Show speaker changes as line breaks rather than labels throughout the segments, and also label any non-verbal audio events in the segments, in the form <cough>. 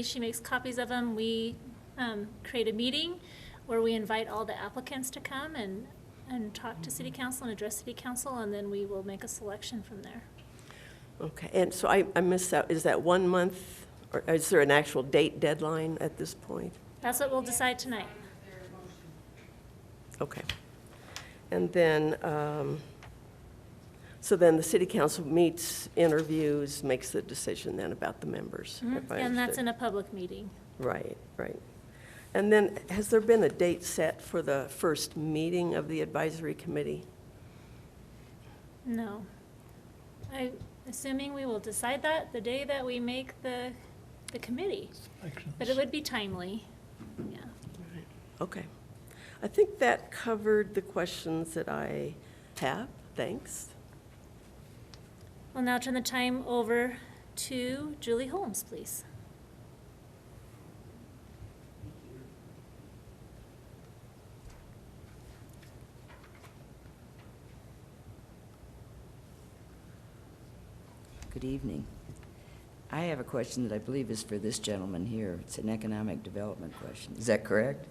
She makes copies of them. We um, create a meeting where we invite all the applicants to come and, and talk to city council and address city council, and then we will make a selection from there.
Okay, and so I, I missed that, is that one month, or is there an actual date deadline at this point?
That's what we'll decide tonight.
Okay. And then, um, so then the city council meets, interviews, makes the decision then about the members?
Mm-hmm.
if I
Mm-hmm, And that's
understood.
in a public meeting.
Right, right. And then, has there been a date set for the first meeting of the advisory committee?
No. I, assuming we will decide that the day that we make the, the committee, but it would be timely, yeah.
Okay. I think that covered the questions that I have. Thanks.
We'll now turn the time over to Julie Holmes, please.
Good evening. I have a question that I believe is for this gentleman here. It's an economic development question. Is that correct?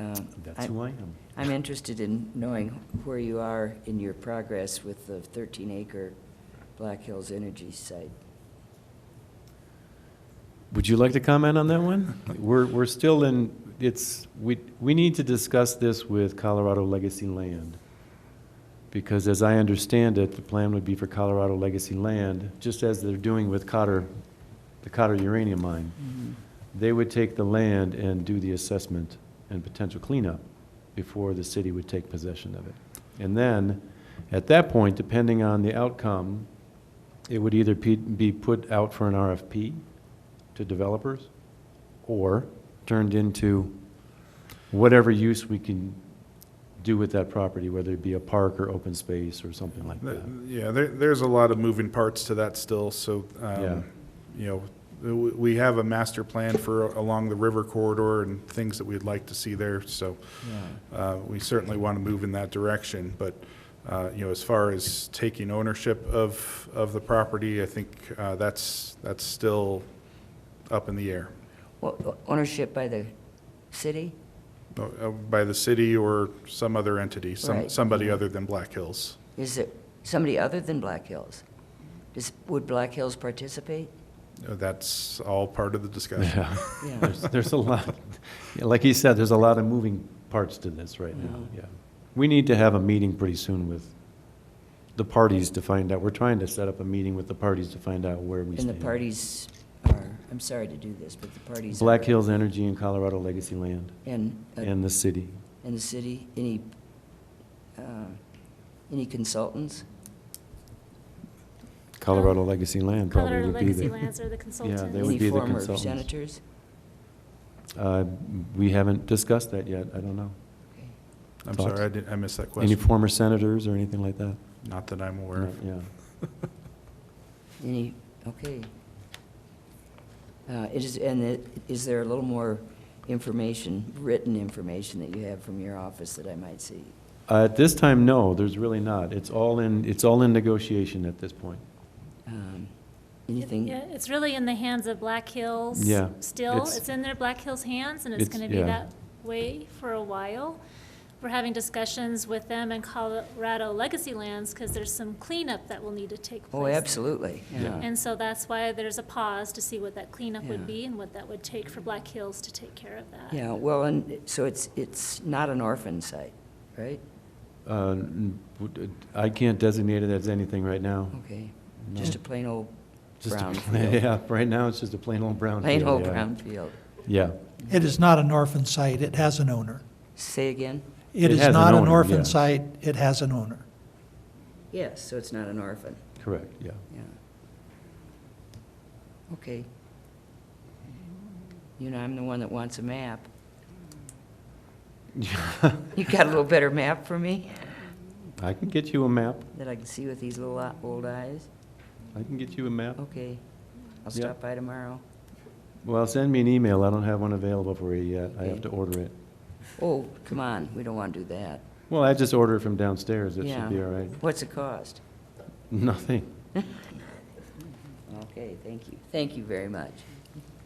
Um,
That's
I-
who I am.
I'm interested in knowing where you are in your progress with the 13-acre Black Hills Energy site.
Would you like to comment on that one? We're, we're still in, it's, we, we need to discuss this with Colorado Legacy Land. Because as I understand it, the plan would be for Colorado Legacy Land, just as they're doing with Cotter, the Cotter uranium mine. They would take the land and do the assessment and potential cleanup before the city would take possession of it. And then, at that point, depending on the outcome, it would either pe- be put out for an RFP to developers or turned into whatever use we can do with that property, whether it be a park or open space or something like
Th-
that.
Yeah, there, there's a lot of moving parts to that still, so,
Yeah.
um, you know, w- we have a master plan for along the river corridor and things that we'd like to see there, so, uh, we certainly want to move in that direction, but, uh, you know, as far as taking ownership of, of the property, I think, uh, that's, that's still up in the air.
Wha- wha- Ownership by the city?
Uh, uh, By the city or some other entity, some,
Right.
somebody other than Black Hills.
Is it somebody other than Black Hills? Does- Would Black Hills participate?
Uh, That's all part of the discussion.
Yeah,
Yeah.
there's, there's a lot, yeah, like he said, there's a lot of moving parts to this right now,
Mm-hmm.
yeah. We need to have a meeting pretty soon with the parties to find out, we're trying to set up a meeting with the parties to find out where we
And
stand.
the parties are, I'm sorry to do this, but the parties are...
Black Hills Energy and Colorado Legacy Land,
And uh,
and the city.
in the city, any, uh, any consultants? uh,
Colorado Legacy Land probably
Colorado
would be
Legacy
there.
Lands
<laughs>
are the
They would
consultants.
Any
be the
former
consultants.
senators?
Uh, We haven't discussed that yet, I don't know.
Okay.
I'm
Thoughts?
sorry, I didn't, I missed that
Any
question.
former senators or anything like that?
Not that I'm aware of.
Yeah.
<laughs>
Any, okay. Uh, It is, and it- is there a little more information, written information that you have from your office that I might see?
Uh, At this time, no, there's really not. It's all in, it's all in negotiation at this point.
Um,
Yeah,
Anything?
it's really in the hands of Black Hills.
Yeah,
Still,
it's-
it's in their Black Hills hands, and it's
It's-
gonna be
yeah.
that way for a while. We're having discussions with them and Colorado Legacy Lands, because there's some cleanup that will need to take place.
Oh,
there.
absolutely,
Yeah.
yeah.
And so that's why there's a pause to see what that cleanup would
Yeah.
be and what that would take for Black Hills to take care of that.
Yeah, well, and, so it's, it's not an orphan site, right?
Uh, n- w- I can't designate it as anything right now.
Okay,
No.
just a plain old
Just a
brown
pla-
field.
<laughs> Yeah, right now, it's just a plain old brown
Plain
field,
old
yeah.
brown field.
Yeah.
It is not an orphan site, it has an owner.
Say again?
It
It is
has an
not an
owner,
orphan
yes.
site, it has an owner.
Yes, so it's not an orphan,
Correct, yeah.
yeah. Okay. You know, I'm the one that wants a map. You got a little better map for me
<laughs> I can get you a map.
that I can see with these little o- old eyes?
I can get you a map.
Okay. I'll
Yeah.
stop by tomorrow.
Well, send me an email. I don't have one available for you yet. I have
Okay.
to order it.
Oh, come on, we don't want to do that.
Well, I just order it from downstairs. It
Yeah.
should be all right. <laughs>
What's it cost? <laughs>
Nothing.
Okay, thank you. Thank you very much.